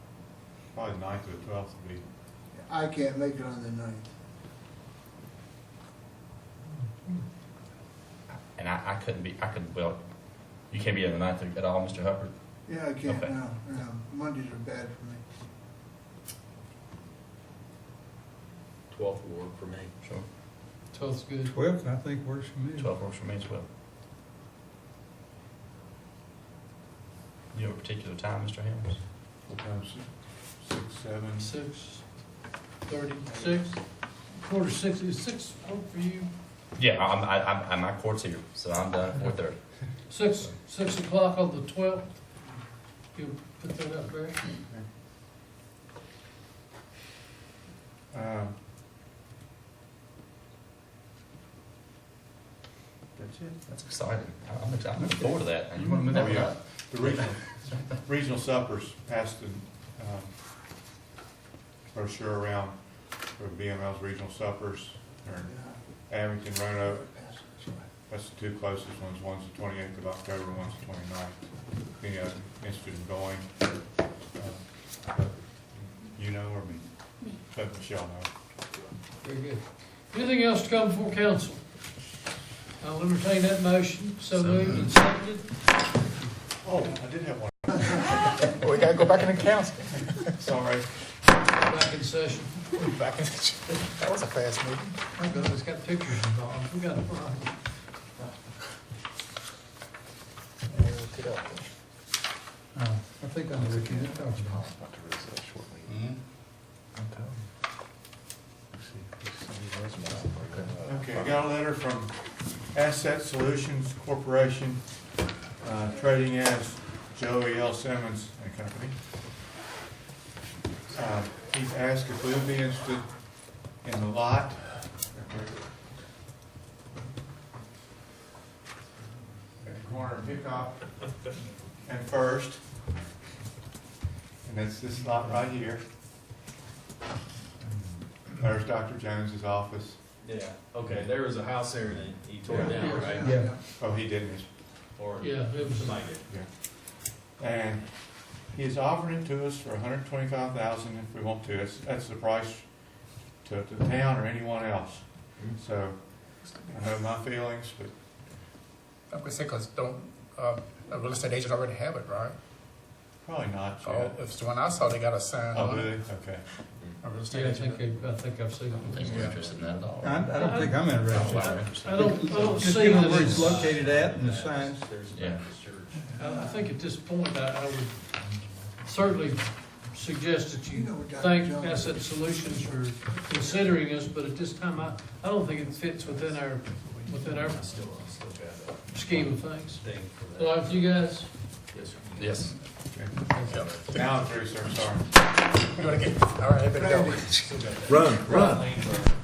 Probably ninth or twelfth would be, I can't make it on the ninth. And I, I couldn't be, I could, well, you can't be on the ninth at all, Mr. Hubbard. Yeah, I can't, Okay. no, no, Mondays are bad for me. Twelfth ward for me. Sure. Twelve's good. Twelfth, I think, works for me. Twelve works for me as well. You have a particular time, Mr. Helms? what time, six, six, seven? Six thirty, six, quarter to six, is six hope for you? Yeah, I'm, I, I'm, I'm my court's here, so I'm done at four thirty. Six, six o'clock on the twelfth. You'll put that up, Barry? Um, That's it. That's exciting. I- I'm, excited. I'm looking forward to that. And you want to move that Oh, one yeah. up? The regional, regional suppers passed the um, brochure around for BML's regional suppers. They're in Yeah. Abington, Roanoke, Pass it, sorry. That's the two closest ones, one's the twenty-eighth of October, one's the twenty-ninth. The, uh, interested in going, uh, but you know or me, but Michelle know. Very good. Anything else to come before council? I'll entertain that motion, so So moved and moved. seconded. Oh, I did have one, We gotta go back into council. sorry. Back in session. Back in, that was a fast meeting. My God, it's got pictures involved. We got a problem. Oh, Uh, I think on the weekend, it talks about. Okay, I got a letter from Asset Solutions Corporation, uh, trading as Joey L. Simmons and Company. Uh, He's asked if we would be interested in the lot. At the corner of Hickox and First. And that's this lot right here. There's Dr. Jones's office. Yeah, okay, there was a house there and he tore it down, right? Yeah. Oh, he didn't, it's Or Yeah, it was, somebody did. And he has offered it to us for hundred and twenty-five thousand if we want to, that's, that's the price to, to the town or anyone else. So, I know my feelings, but I'm gonna say, cause don't, uh, a real estate agent already have it, right? probably not Oh, yet. if it's the one I saw, they got a sign Oh, on do it. they? Okay. A real estate yeah, I agent. think, I I think I've seen I don't it. think we're interested in that at all. I, I don't think I'm Oh, interested. wow, interesting. I don't, I don't Just see give them that where it's it's, I located at and the signs. There's a Yeah. Baptist church. I think at this point, I, I would certainly suggest that You you know what Dr. thank Jones- Asset Solutions for considering us, but at this time, I, I don't think it fits within our, within our I still, I still got a scheme of things. thing for that. All right, you guys? Yes, sir. Yes. Now I'm through, sir, sorry. You wanna get, all right, everybody go. Brandon. Still got that. Run.